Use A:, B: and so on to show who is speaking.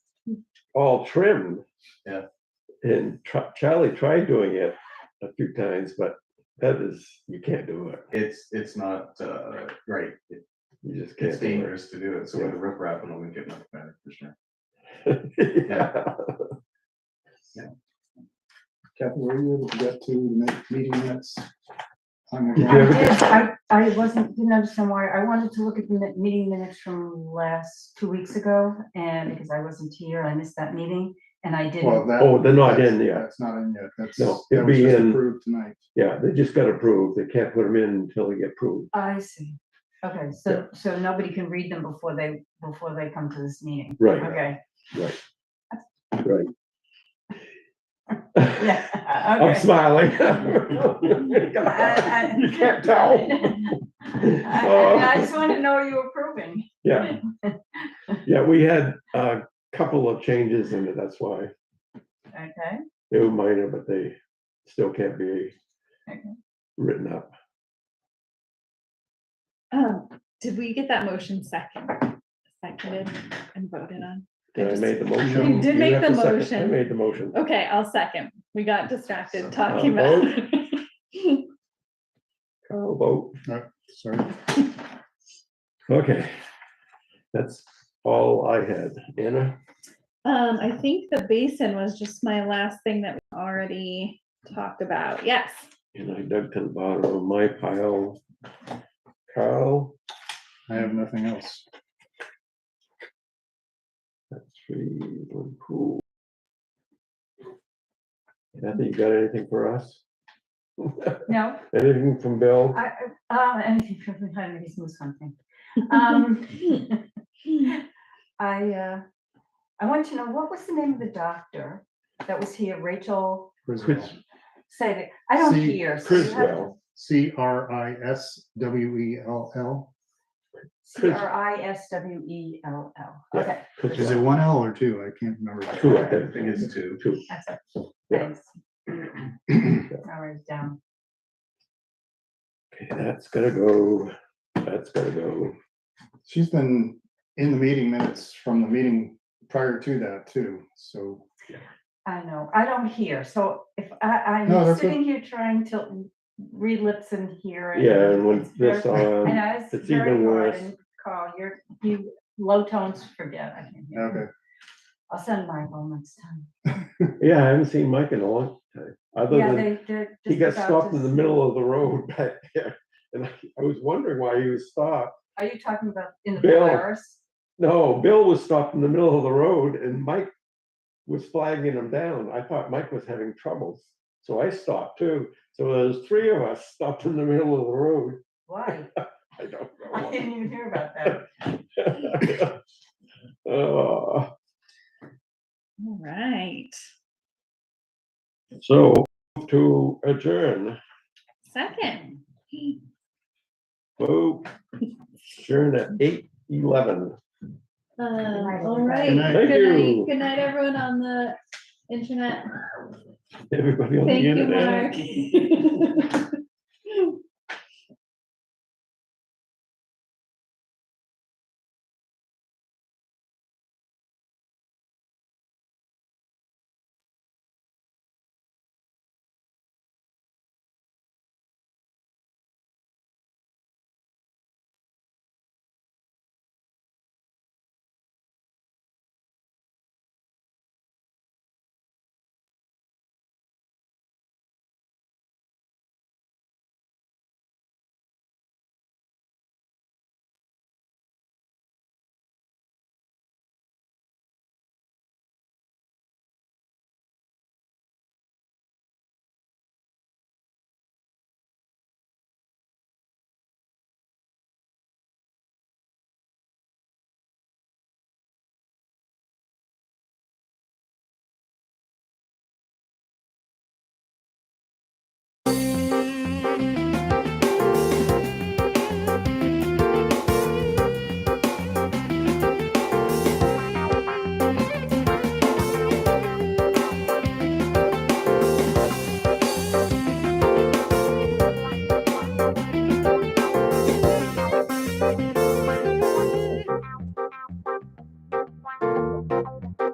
A: all trimmed.
B: Yeah.
A: And Tr- Charlie tried doing it a few times, but that is, you can't do it.
B: It's, it's not, uh, right, It-
A: You just
B: it's
A: can't. do
B: dangerous to do it, so with the riprap and the wind get much better, for sure.
A: it. Yeah.
C: Kathy, were you able to get to the next meeting minutes? I'm
A: Did you
C: gonna-
D: I
A: ever-
D: did, I, I wasn't, didn't understand why, I wanted to look at the mi- meeting minutes from last, two weeks ago, and because I wasn't here, I missed that meeting, and I
C: Well,
D: didn't.
C: that-
A: Oh, they're not
C: that's-
A: in yet.
C: That's not in yet, that's,
A: No,
C: that
A: it'd
C: was
A: be
C: just
A: in-
C: approved tonight.
A: Yeah, they just got approved. They can't put them in until they get approved.
D: I see, okay, so, so nobody can read them before they, before they come to this meeting,
A: Right,
D: okay,
A: right.
D: yeah,
A: I'm
D: okay.
A: smiling.
D: I- I-
A: You can't tell.
D: I, I I
A: Uh,
D: just wanted to know what you were approving,
A: Yeah. Yeah, we had a couple of changes in it, that's why.
D: okay,
A: They were minor, but they still can't be
D: Okay.
A: written up.
E: Um, did we get that motion second, seconded and voted on? I
A: Did I
E: just-
A: made the motion?
E: did make
A: have
E: the
A: to second. I
E: motion.
A: made the motion.
E: Okay, I'll second. We got
B: Second.
E: distracted talking
A: Um,
E: about.
A: Call vote.
C: Sorry,
A: Okay. That's all I had. Anna?
E: Um, I think the basin was just my last thing that we already talked about. Yes.
A: And I dug to the bottom of my pile. Carl,
C: I have nothing else.
A: that's three, one, cool. Kathy, you got anything for us?
D: no,
A: Anything from Bill?
D: I, uh, anything from the he's moved something. Um, I, uh, I want to know, what was the name of the doctor that was here, Rachel,
A: Cris-
D: said it, I don't
C: See,
D: hear. so you have
A: Criswell,
C: C R I S W E L L.
D: C R I S W E L L,
A: Yeah.
D: okay,
C: Is it
A: Criswell,
C: one L or two? I can't remember.
A: Two, I
B: I think it's two.
A: two.
D: that's it,
A: Yeah.
D: thanks. I'll write it down.
A: Okay, That's gotta go, that's gotta go.
C: She's been in the meeting minutes from the meeting prior to that too, so.
D: I know, I don't hear, so if I,
C: No,
D: I'm
C: that's o-
D: sitting here trying to read lips and hear. and
A: Yeah, and
D: it's
A: when
D: very-
A: this um, on,
D: And I was
A: it's
D: very
A: even
D: hard,
A: worse.
D: and Carl, you're, you, low tones, forget, I can hear.
C: Okay,
D: I'll send Michael next time.
A: yeah, I haven't seen Mike in a long time, other
D: Yeah,
A: than
D: they, they're.
A: he
D: just
A: got
D: about
A: stopped
D: to
A: in the
D: s-
A: middle of the road back there. And I I was wondering why he was stopped.
D: Are you talking about in the
A: Bill.
D: Polaris?
A: No, Bill was stopped in the middle of the road and Mike was flagging him down. I thought Mike was having troubles. So I stopped too. So there's three of us stopped in the middle of the road.
D: Why?
A: I don't
D: I
A: know.
D: didn't even hear about that.
A: Uh,
E: All right.
A: So to adjourn,
E: Second.
A: vote, adjourn at eight eleven.
E: Um,
D: night,
E: all
D: everybody.
E: right.
C: Good night.
A: Thank
E: Good
A: you.
E: night. Good night, everyone on the internet.
A: Everybody on the
E: Thank you,
A: internet.
E: Mark.